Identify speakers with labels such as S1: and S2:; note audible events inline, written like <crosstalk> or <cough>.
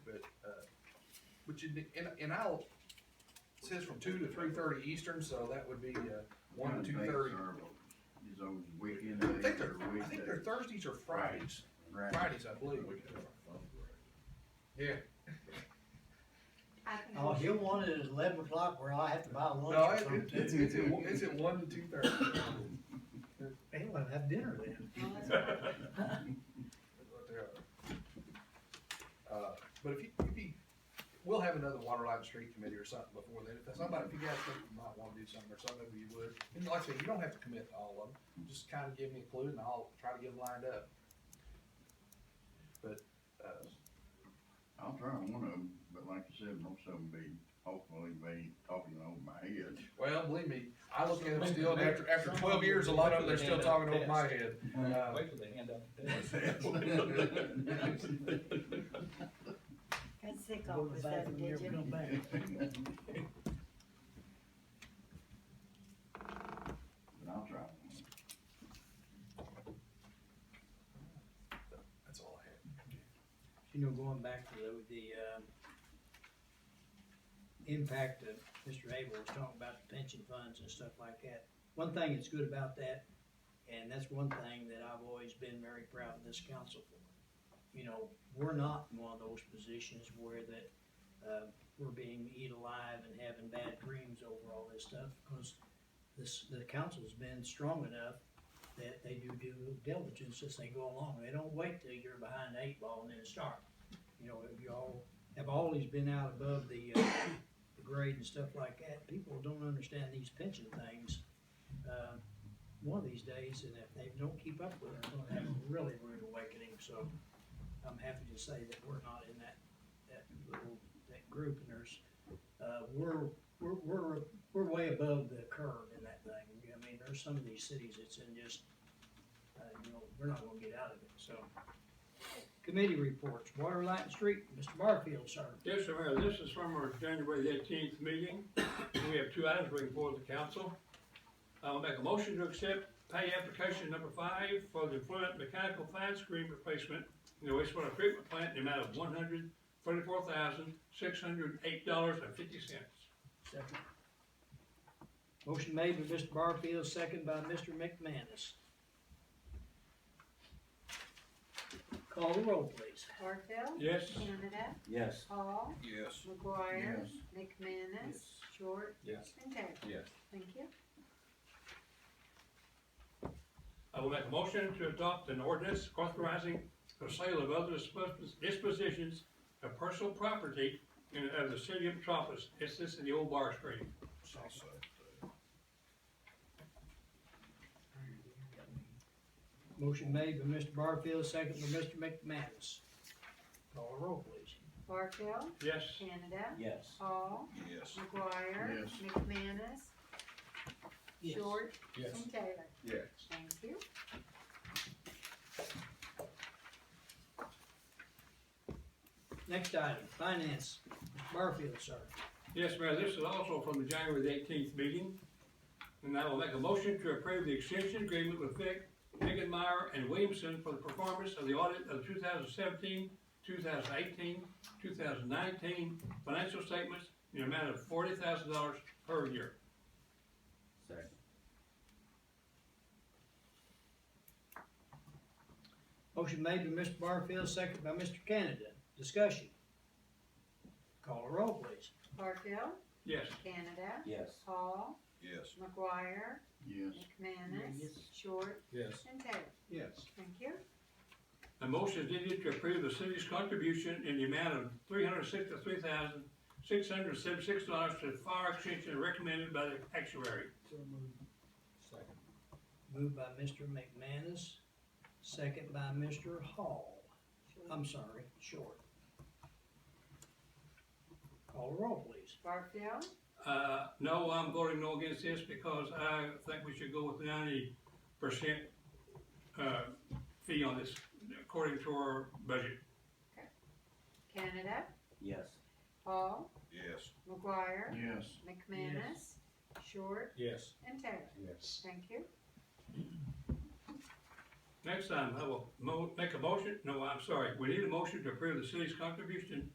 S1: uh, But you, need- and, and I'll, it says from two to three thirty Eastern, so that would be, uh, one to two thirty.
S2: Is on weekend
S1: I
S2: days
S1: think they're,
S2: or
S1: I think they're
S2: weekdays.
S1: Thursdays or Fridays,
S2: Right.
S1: Fridays, I believe. Yeah,
S3: I can
S4: Oh,
S3: always-
S4: he'll want it at eleven o'clock where I have to buy lunch.
S1: no,
S4: or
S1: it, it-
S4: something.
S1: it's, it's, at one- it's at one to two thirty.
S4: <laughs> They want to have dinner then.
S3: Oh, that's fine.
S1: Uh, But if you, if you, we'll have another water line street committee or something before then, if that's somebody, if you guys think you might wanna do something or something, maybe you would. And like I said, you don't have to commit to all of them, just kinda give me a clue and I'll try to get them lined up. But, uh,
S2: I'll try one of them, but like you said, most of them be, hopefully be talking over my head.
S1: well, believe me, I look at them still, and after, after twelve years, a lot of them, they're still talking over my head. Uh,
S5: Wait till they hand out the
S2: That's
S5: test.
S2: <laughs> it.
S5: <laughs>
S3: That's sick
S4: Go to
S3: off
S4: the
S3: with that,
S4: bathroom,
S3: did
S4: never
S3: you?
S4: come back.
S2: But I'll try one.
S1: That's all I have.
S4: You know, going back to the, the, um, impact of Mr. Abel was talking about the pension funds and stuff like that. One thing that's good about that, and that's one thing that I've always been very proud of this council for. You know, we're not in one of those positions where that, uh, we're being eat alive and having bad dreams over all this stuff, because this, the council's been strong enough that they do due diligence as they go along. They don't wait till you're behind the eight ball and then start. You know, if y'all have always been out above the, uh, the grade and stuff like that, people don't understand these pension things. Uh, one of these days, and if they don't keep up with it, they'll have a really rude awakening, so I'm happy to say that we're not in that, that little, that group, and there's, uh, we're, we're, we're, we're way above the curve in that thing. I mean, there's some of these cities that's in just uh, you know, we're not gonna get out of it, so. Committee reports, Water, Light, and Street, Mr. Barfield, sir.
S6: Yes, sir, Mayor, this is from our January eighteenth meeting. We have two items bring forward to council. I'll make a motion to accept pay application number five for the Fluent Mechanical Fine Screen Replacement in the wastewater treatment plant in the amount of one hundred thirty-four thousand, six hundred eight dollars and fifty cents.
S4: Second. Motion made by Mr. Barfield, second by Mr. McManus. Call the roll, please.
S3: Barfield,
S6: Yes,
S3: Canada,
S5: Yes.
S3: Hall,
S1: Yes.
S3: McGuire,
S2: Yes.
S3: McManus,
S1: Yes.
S3: Short,
S5: Yes.
S3: and Taylor.
S5: Yes.
S3: Thank you.
S6: I will make a motion to adopt an ordinance authorizing the sale of other dispos- dispositions of personal property in, of the city of Metropolis. It's this in the old bar screen.
S4: Motion made by Mr. Barfield, second by Mr. McManus. Call the roll, please.
S3: Barfield,
S6: Yes,
S3: Canada,
S5: Yes.
S3: Hall,
S1: Yes.
S3: McGuire,
S2: Yes.
S3: McManus, Short, and Taylor.
S1: Yes.
S3: Thank you.
S4: Next item, finance, Mr. Barfield, sir.
S6: yes, Mayor, this is also from the January eighteenth meeting. And I will make a motion to approve the extension agreement with Vic, Megan Meyer, and Williamson for the performance of the audit of 2017, 2018, 2019 financial statements in the amount of forty thousand dollars per year.
S5: Second.
S4: Motion made by Mr. Barfield, second by Mr. Canada. Discussion. Call a roll, please.
S3: Barfield,
S6: Yes.
S3: Canada,
S5: Yes.
S3: Hall,
S1: Yes.
S3: McGuire,
S2: Yes,
S3: McManus,
S4: Yes.
S3: Short,
S5: Yes.
S3: and Taylor.
S1: Yes.
S3: Thank you.
S6: A motion is needed to approve the city's contribution in the amount of three hundred sixty-three thousand, six hundred seventy-six dollars to the fire extension recommended by the actuary.
S5: Second.
S4: Moved by Mr. McManus, second by Mr. Hall. I'm sorry, Short. Call a roll, please.
S3: Barfield,
S6: Uh, no, I'm voting no against this because I think we should go with ninety percent, uh, fee on this according to our budget.
S3: Canada,
S5: Yes.
S3: Hall,
S1: Yes.
S3: McGuire,
S2: yes.
S3: McManus, Short,
S5: Yes.
S3: and Taylor.
S5: Yes.
S3: Thank you.
S6: Next time, I will mo- make a motion, no, I'm sorry, we need a motion to approve the city's contribution